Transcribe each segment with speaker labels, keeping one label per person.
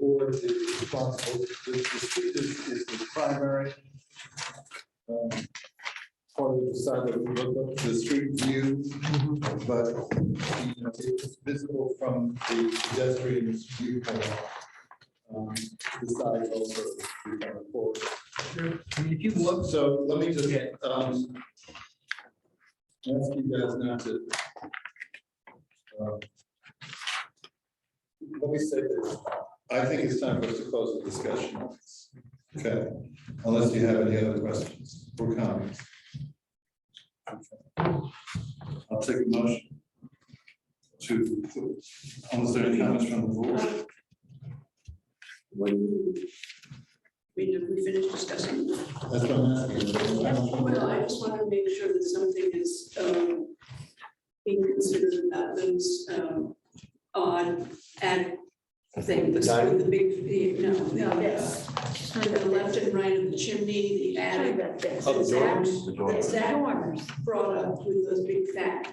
Speaker 1: board is responsible, this is, is- is the primary. um, Part of the side that we look up to the street view, but you know, it's visible from the pedestrian's view. um, The side also, we have a porch.
Speaker 2: I mean, if you look,
Speaker 1: So let me just, um, ask you guys not to. uh, Let me say this, I think it's time for us to close the discussion. on this. Okay, unless you have any other questions or comments. I'll take a motion to, unless there are any comments from the board.
Speaker 3: When you, I mean, if we finish discussing.
Speaker 1: That's what I'm asking.
Speaker 3: Well, I just want to make sure that something is um, being considered about those um, odd ad thing, the sort of the big, the- no, no.
Speaker 4: Yes.
Speaker 3: To the left and right of the chimney, the
Speaker 4: Sorry
Speaker 3: attic.
Speaker 4: about that.
Speaker 5: Oh, the doors, the
Speaker 3: That
Speaker 5: doors.
Speaker 3: Zach brought up with those big fat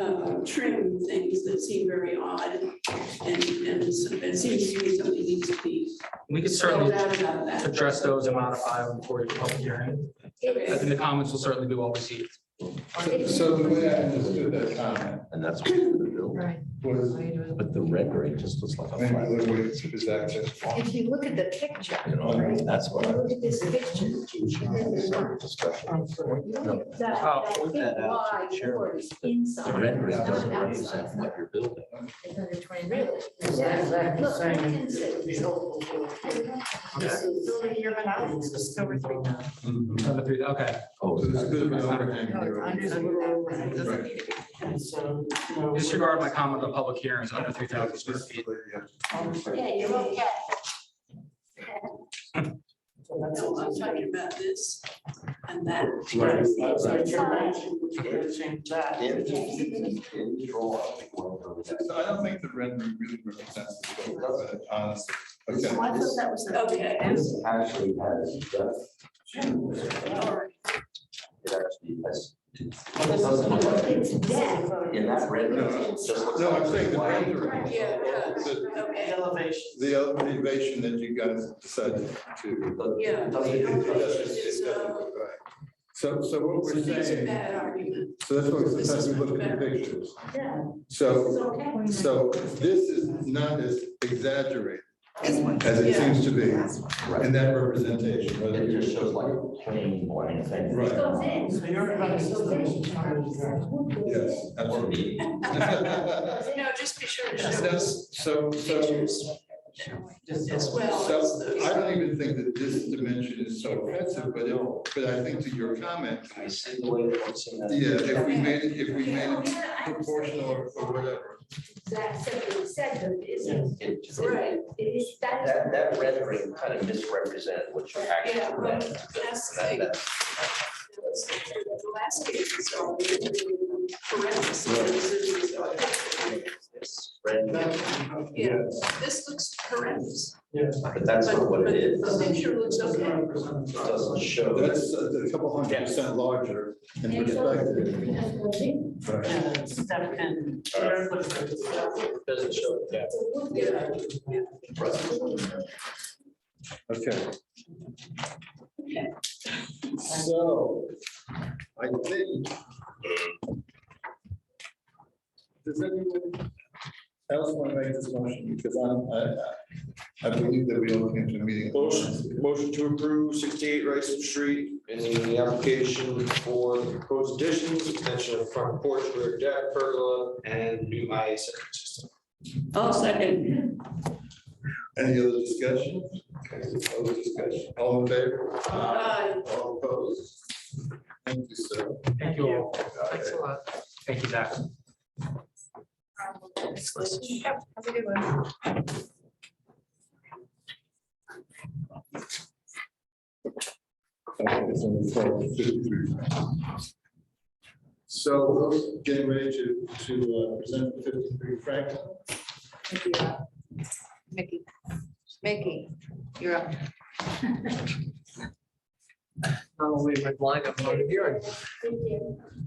Speaker 3: uh, trim things that seem very odd. And, and so it seems to me something needs to be
Speaker 2: we could
Speaker 3: spelled
Speaker 2: certainly
Speaker 3: out about that.
Speaker 2: address those and modify them before your public hearing. I think the comments will certainly be well received.
Speaker 1: So- So the way I understood that comment
Speaker 5: And that's what we're gonna do.
Speaker 4: Right.
Speaker 1: was
Speaker 5: But the rendering just looks like a
Speaker 1: Maybe
Speaker 5: flat.
Speaker 1: other ways to present it.
Speaker 4: If you look at the picture,
Speaker 5: You know, that's what. I
Speaker 4: look at this picture.
Speaker 5: Discussion.
Speaker 4: That,
Speaker 1: Oh.
Speaker 2: I'll
Speaker 4: that
Speaker 5: point
Speaker 4: big
Speaker 5: that out to the
Speaker 4: wide
Speaker 5: chair.
Speaker 4: door is
Speaker 5: The
Speaker 4: inside.
Speaker 5: rendering
Speaker 4: not
Speaker 5: doesn't
Speaker 4: outside.
Speaker 5: represent what you're building.
Speaker 4: It's under 20 really.
Speaker 6: Yeah, exactly,
Speaker 4: Look,
Speaker 6: same.
Speaker 4: you can see. This is-
Speaker 2: Number three, Okay,
Speaker 5: Oh,
Speaker 1: So there's a bit of an overhang here.
Speaker 6: Right.
Speaker 2: disregard my comment on public hearings under three thousand square feet.
Speaker 4: Yeah, you're okay.
Speaker 3: No, I'm talking about this and that.
Speaker 5: Right.
Speaker 1: So I don't think the rendering really represents the photo, honestly.
Speaker 6: I
Speaker 1: Okay.
Speaker 6: thought that was. the-
Speaker 3: Okay.
Speaker 7: This actually has just two. It
Speaker 3: All right.
Speaker 7: actually has.
Speaker 6: Oh,
Speaker 4: It's dead.
Speaker 7: In that red.
Speaker 1: No, no. No, I'm saying the rendering.
Speaker 3: Yeah, yeah.
Speaker 1: The-
Speaker 3: Okay,
Speaker 1: The elevation that you guys decided to.
Speaker 3: yeah.
Speaker 7: Doesn't-
Speaker 3: It's, uh,
Speaker 1: Right. So, so what we're
Speaker 3: It's a
Speaker 1: saying,
Speaker 3: bad argument.
Speaker 1: so that's why
Speaker 3: This
Speaker 1: sometimes
Speaker 3: is
Speaker 1: we look
Speaker 3: much
Speaker 1: at the
Speaker 3: better.
Speaker 1: pictures.
Speaker 4: Yeah.
Speaker 1: So,
Speaker 4: okay.
Speaker 1: so this is not as exaggerated as it
Speaker 3: Yeah.
Speaker 1: seems to be in that representation. whether
Speaker 7: It
Speaker 1: you-
Speaker 7: just shows like plain white thing.
Speaker 1: Right.
Speaker 4: Goes in.
Speaker 6: So you're about to-
Speaker 1: Yes,
Speaker 7: Or
Speaker 1: absolutely.
Speaker 7: me.
Speaker 3: No, just be sure to show us
Speaker 1: That's- So, so
Speaker 3: pictures as well. as
Speaker 1: So I
Speaker 3: those.
Speaker 1: don't even think that this dimension is so offensive, but it, but I think to your comment,
Speaker 7: I see the way it's in that.
Speaker 1: yeah, if we made it, if we made it proportional or or whatever.
Speaker 4: Zach said what he said, but it isn't.
Speaker 7: It-
Speaker 3: Right,
Speaker 4: It is, that is.
Speaker 7: That, that rendering kind of misrepresented what you actually.
Speaker 3: Yeah, right.
Speaker 7: read.
Speaker 3: That's the
Speaker 7: That-
Speaker 3: thing.
Speaker 7: that-
Speaker 3: The last case is all. Horrendous.
Speaker 7: This rendering,
Speaker 3: Yeah, this looks horrendous.
Speaker 7: but that's not what
Speaker 3: But-
Speaker 7: it
Speaker 3: but The
Speaker 7: is. It
Speaker 3: picture looks okay.
Speaker 7: doesn't show.
Speaker 1: That's a couple hundred percent larger in perspective. Right.
Speaker 7: It Doesn't show. the depth.
Speaker 3: Yeah.
Speaker 1: Okay. So, I think. Does anyone else want to make this motion? Because I'm, I, I believe that we all came to a meeting.
Speaker 8: Motion, motion to approve sixty-eight Rice Street in the application for proposed additions, extension of front porch, rear deck, pergola, and new IA septic system.
Speaker 3: I'll second.
Speaker 1: Any other discussion? Other discussion, all in favor?
Speaker 3: Aye.
Speaker 1: All opposed? Thank you, sir.
Speaker 2: Thank you all. Thank you, Zach.
Speaker 1: So we're getting ready to, to uh, present the fifty-three Franklin.
Speaker 4: Mickey. Mickey, you're up.
Speaker 2: Not only my blind, I'm not hearing.
Speaker 4: Thank you.